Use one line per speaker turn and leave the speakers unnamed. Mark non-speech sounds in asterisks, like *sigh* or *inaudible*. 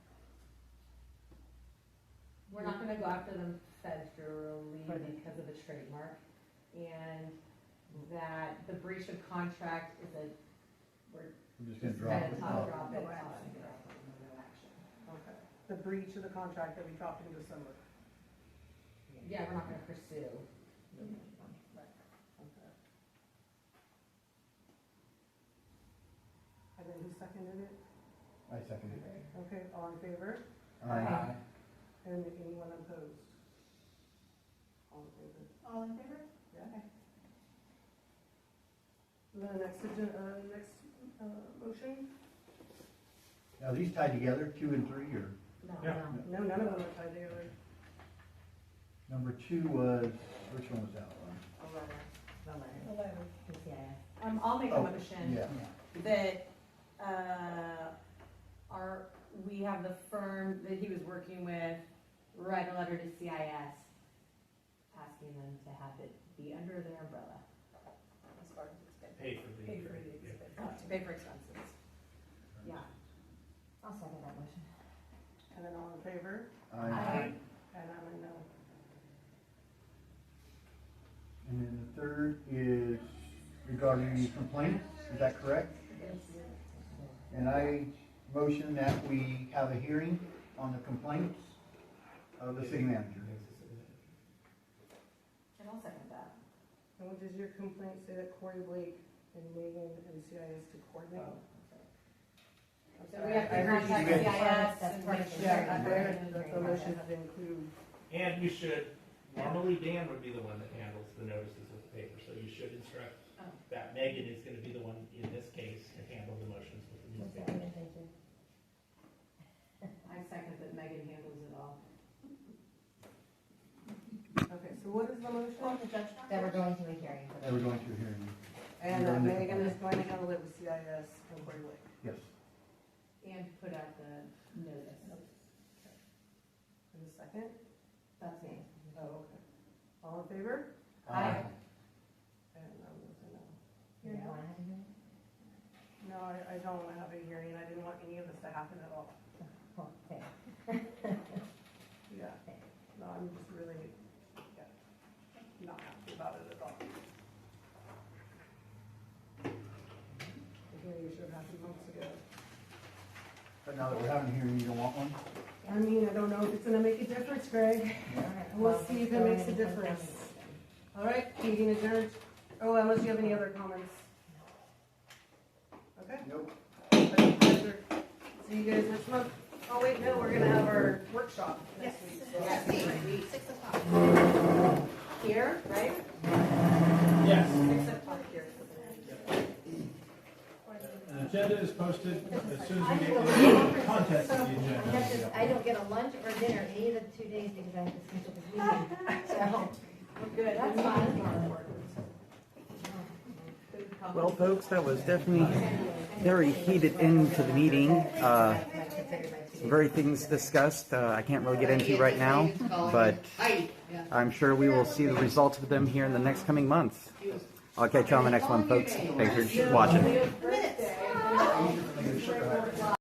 gonna go after them federally
Right.
because of the trademark, and that the breach of contract is a, we're
I'm just gonna drop
gonna
it.
top
Oh,
drop it.
No
top
action.
it, no action.
Okay. The breach of the contract that we dropped in December.
Yeah, we're not gonna pursue.
Right. Okay. And then who seconded it?
Oh, I second it.
Okay, all in favor?
Aye.
And anyone opposed? All in favor?
All in favor?
Yeah. The next agenda, uh, next, uh, motion?
Now, these tied together, two and three, or?
No,
Yeah.
no.
No, none of them are tied together.
Number two was, which one was that one?
The letter.
Um, I'll make a
Oh,
motion.
Yeah.
that, uh, our, we have the firm that he was working with write a letter to CIS asking them to have it be under their umbrella,
As far as it's been.
Pay for the.
Pay for the
Yeah.
expense. uh,
to pay for expenses. Yeah.
I'll second that motion.
And then all in favor?
Aye.
And I'm a no.
And then the third is regarding complaints, is that correct? And I motion that we have a hearing on the complaints of the city manager.
And I'll second that.
And what does your complaint say that Corey Blake and Megan and CIS to coordinate? I'm
So
sorry,
we have
I
to
heard you
contact CIS
said-
That's
and
part
make
of
sure.
the-
Yeah, I
that
heard
they're-
that the motion to include,
And you should, normally Dan would be the one that handles the notices with the paper, so you should instruct
Oh.
that Megan is gonna be the one, in this case, to handle the motions with the newspaper.
I second that Megan handles it all.
okay, so what is the motion?
That we're going to a hearing.
That we're going to a hearing,
And
You're
that
on the
Megan
complaint.
is going to handle it with CIS and Corey Blake.
yes.
And put out the notice.
In a second?
That's me.
Oh, okay. All in favor?
Uh,
Aye.
And I'm a no.
You don't wanna have a hearing?
No, I, I don't want to have a hearing, I didn't want any of this to happen at all.
Oh,
Okay.
Yeah. No, I'm just really, yeah, not happy about it at all. The hearing should have happened months ago.
But now that we're having a hearing, you don't want one?
I mean, I don't know if it's gonna make a difference, Greg.
Alright,
We'll
well,
see if it
go
makes a
ahead and-
difference. All right, meeting adjourned. Oh, unless you have any other comments? Okay.
Nope.
See you guys next month. Oh, wait, no, we're gonna have our workshop next
Yes.
week. so-
Yes. Six o'clock.
Here, right?
Yes.
Six o'clock here.
An agenda is posted as soon
I
as we
have a
get
conference,
contact to
so
the
I
agenda.
have to- I don't get a lunch or dinner any of the two days because I have to schedule this
*laughs*
meeting. So,
We're good. That's fine.
Well, folks, that was definitely very heated end to the meeting. Uh, very things discussed. Uh, I can't really get into right now, but I'm sure we will see the results of them here in the next coming months. I'll catch you on the next one, folks. Thanks for watching.